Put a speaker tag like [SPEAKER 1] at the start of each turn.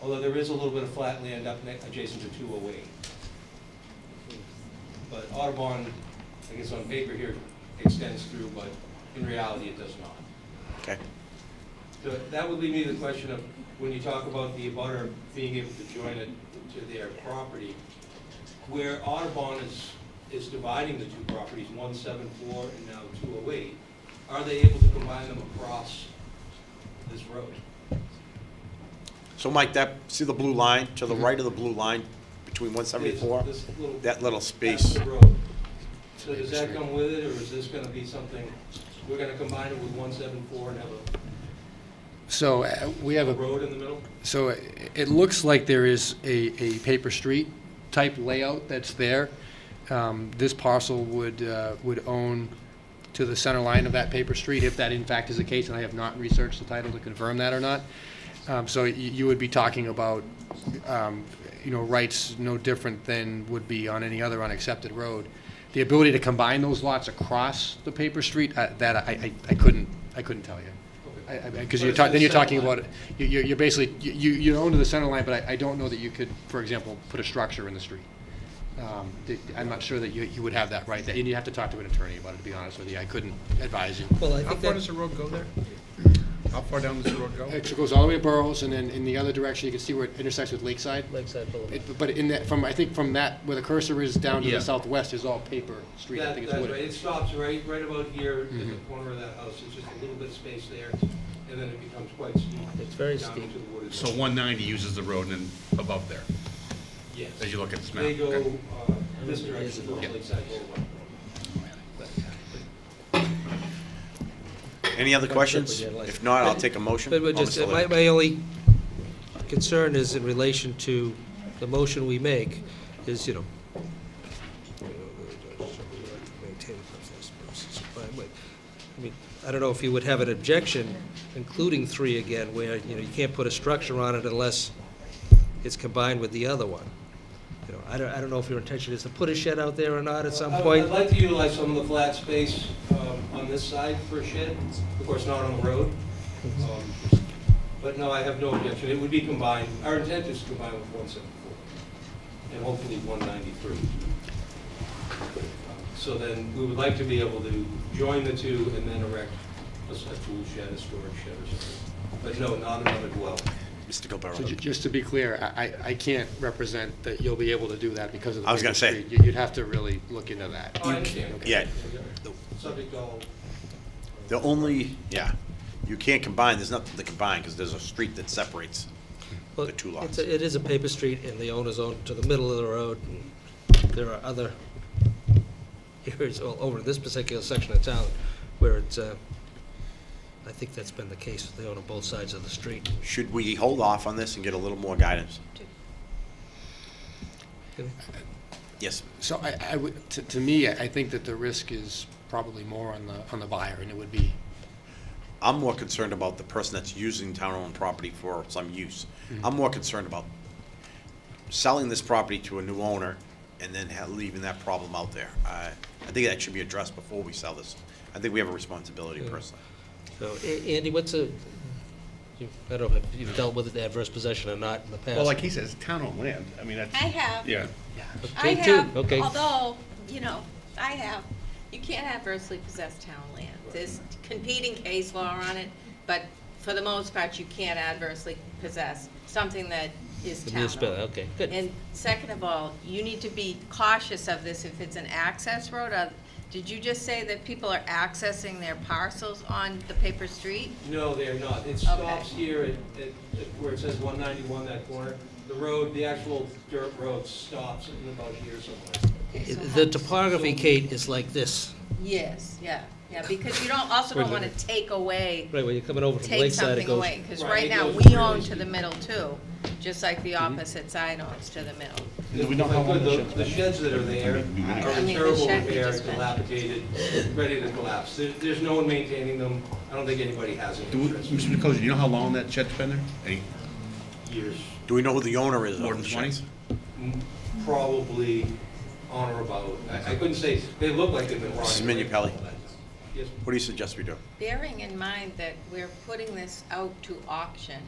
[SPEAKER 1] although there is a little bit of flat land up ne- adjacent to 208. But Audubon, I guess on paper here, extends through, but in reality, it does not.
[SPEAKER 2] Okay.
[SPEAKER 1] So that would lead me to the question of, when you talk about the abutter being able to join it to their property, where Audubon is, is dividing the two properties, one seven four and now two oh eight, are they able to combine them across this road?
[SPEAKER 2] So Mike, that, see the blue line, to the right of the blue line, between one seventy-four?
[SPEAKER 1] Mm-hmm. This- this little-
[SPEAKER 2] That little
[SPEAKER 1] That's
[SPEAKER 2] space.
[SPEAKER 1] the road. So does that come with it, or is this gonna be something, we're gonna combine it with one seven four and have
[SPEAKER 3] So uh, we have
[SPEAKER 1] a
[SPEAKER 3] a
[SPEAKER 1] road in the middle?
[SPEAKER 3] So i- it looks like there is a, a paper street type layout that's there. Um, This parcel would, uh, would own to the center line of that paper street, if that in fact is the case, and I have not researched the title to confirm that or not. Um, So you, you would be talking about, um, you know, rights no different than would be on any other unaccepted road. The ability to combine those lots across the paper street, uh, that I, I- I couldn't, I couldn't tell you.
[SPEAKER 1] Okay.
[SPEAKER 3] Because
[SPEAKER 1] But
[SPEAKER 3] you're
[SPEAKER 1] it's to
[SPEAKER 3] talking, then
[SPEAKER 1] the
[SPEAKER 3] you're
[SPEAKER 1] center
[SPEAKER 3] talking
[SPEAKER 1] line.
[SPEAKER 3] about, it- you- you- you're basically, you- you, you own to the center line, but I, I don't know that you could, for example, put a structure in the street. Um, th- I'm not sure that you, you would have that right, and you'd have to talk to an attorney about it, to be honest with you, I couldn't advise you.
[SPEAKER 4] Well, I
[SPEAKER 5] How
[SPEAKER 4] think
[SPEAKER 5] far
[SPEAKER 4] that,
[SPEAKER 5] does the road go there? How far down does the road go?
[SPEAKER 3] It goes all the way to Burrows, and then in the other direction, you can see where it intersects with Lakeside.
[SPEAKER 4] Lakeside Boulevard.
[SPEAKER 3] It- But in that, from, I think from that, where the cursor is down to
[SPEAKER 5] Yeah.
[SPEAKER 3] the southwest is all paper street, I
[SPEAKER 1] That,
[SPEAKER 3] think it's Mm-hmm.
[SPEAKER 1] that's right, it
[SPEAKER 3] wooded.
[SPEAKER 1] stops right, right about here at the corner of that house, it's just a little bit of space there, and then it becomes quite steep.
[SPEAKER 4] It's very
[SPEAKER 1] down
[SPEAKER 4] steep.
[SPEAKER 1] into the wood.
[SPEAKER 5] So 190 uses the road and then above there,
[SPEAKER 1] Yes.
[SPEAKER 5] as you look at this map.
[SPEAKER 1] They go,
[SPEAKER 5] okay.
[SPEAKER 1] uh, this direction,
[SPEAKER 4] Yeah.
[SPEAKER 1] Lakeside Boulevard.
[SPEAKER 2] Any other questions? If not, I'll take a motion.
[SPEAKER 4] But we're
[SPEAKER 2] Oh,
[SPEAKER 4] just,
[SPEAKER 2] Mr.
[SPEAKER 3] uh,
[SPEAKER 4] my,
[SPEAKER 2] Lynn.
[SPEAKER 4] my only concern is in relation to the motion we make is, you know, I mean, I don't know if you would have an objection, including three again, where, you know, you can't put a structure on it unless it's combined with the other one. You know, I don't, I don't know if your intention is to put a shed out there or not at some
[SPEAKER 1] I-
[SPEAKER 4] point.
[SPEAKER 1] I'd like to utilize some of the flat space um, on this side for a shed, of course, not on the road.
[SPEAKER 4] Mm-hmm.
[SPEAKER 1] Um, But no, I have no objection, it would be combined, our intent is to combine with 174 and hopefully 193. Um, So then, we would like to be able to join the two and then erect a s- a tool shed, a storage shed or something. But no, not another dwelling.
[SPEAKER 2] Mr.
[SPEAKER 3] So ju-
[SPEAKER 2] Gilberto.
[SPEAKER 3] just to be clear, I, I- I can't represent that you'll be able to do that because of the
[SPEAKER 2] I was gonna
[SPEAKER 3] paper
[SPEAKER 2] say.
[SPEAKER 3] street. You- You'd have to really look into that.
[SPEAKER 1] Oh, I understand.
[SPEAKER 2] yeah.
[SPEAKER 1] Subject to all.
[SPEAKER 2] The only, yeah, you can't combine, there's nothing to combine, because there's a street that separates.
[SPEAKER 4] Well,
[SPEAKER 2] the two
[SPEAKER 4] it's
[SPEAKER 2] lots.
[SPEAKER 4] a- It is a paper street, and the owner's own to the middle of the road, and there are other areas all over this particular section of town where it's, uh, I think that's been the case, they own on both sides of the street.
[SPEAKER 2] Should we hold off on this and get a little more guidance? Yes,
[SPEAKER 3] So I, I would, to, to me, I I think that the risk is probably more on the, on the buyer, and it would be,
[SPEAKER 2] I'm more concerned about the person that's using town-owned property for some use. I'm more concerned about selling this property to a new owner and then ha- leaving that problem out there. I, I think that should be addressed before we sell this. I think we have a responsibility
[SPEAKER 4] Yeah.
[SPEAKER 2] personally.
[SPEAKER 4] So, A- Andy, what's a, you- I don't know if you've dealt with adverse possession or not in the past.
[SPEAKER 5] Well, like he says, town on land, I mean, that's.
[SPEAKER 6] I have.
[SPEAKER 5] Yeah.
[SPEAKER 6] I
[SPEAKER 4] Take two,
[SPEAKER 6] have,
[SPEAKER 4] okay.
[SPEAKER 6] although, you know, I have, you can't adversely possess town land. There's competing case law on it, but for the most part, you can't adversely possess something that is
[SPEAKER 4] The
[SPEAKER 6] town
[SPEAKER 4] municipal- okay, good.
[SPEAKER 6] And second of all, you need to be cautious of this if it's an access road. Uh, Did you just say that people are accessing their parcels on the paper street?
[SPEAKER 1] No, they're not. It stops here at, at, at where it says one ninety-one, that corner. The road, the actual dirt road stops in about here somewhere.
[SPEAKER 4] Uh, The topography, Kate, is like this,
[SPEAKER 6] Yes, yeah, yeah, because you don't, also don't want to take away
[SPEAKER 4] right, when you're coming over from
[SPEAKER 6] take
[SPEAKER 4] Lakeside, it
[SPEAKER 6] something
[SPEAKER 4] goes.
[SPEAKER 6] away, because
[SPEAKER 1] Right,
[SPEAKER 6] right
[SPEAKER 1] it
[SPEAKER 6] now,
[SPEAKER 1] goes
[SPEAKER 6] we
[SPEAKER 1] really
[SPEAKER 6] own to
[SPEAKER 1] deep.
[SPEAKER 6] the middle too, just like the
[SPEAKER 1] Mm-hmm.
[SPEAKER 6] opposite side owns to the middle.
[SPEAKER 1] We don't The the sheds that are there are
[SPEAKER 6] I
[SPEAKER 1] in
[SPEAKER 6] mean, the
[SPEAKER 1] terrible
[SPEAKER 6] shed we
[SPEAKER 1] repair,
[SPEAKER 6] just mentioned.
[SPEAKER 1] dilapidated, ready to collapse. There, there's no one maintaining them. I don't think anybody has an
[SPEAKER 5] Do we-
[SPEAKER 1] interest.
[SPEAKER 5] Mr. Nicosia, do you know how long that shed's been there? Eight,
[SPEAKER 1] Years,
[SPEAKER 2] Do we know who the owner is? of
[SPEAKER 5] more than
[SPEAKER 2] the
[SPEAKER 5] 20?
[SPEAKER 2] sheds?
[SPEAKER 1] m- probably on or about, I, I couldn't say, they look like they've been
[SPEAKER 2] Mrs.
[SPEAKER 1] rotting. away for
[SPEAKER 2] Minipelli.
[SPEAKER 1] all that time. Yes,
[SPEAKER 2] What do you suggest we do?
[SPEAKER 6] Bearing in mind that we're putting this out to auction,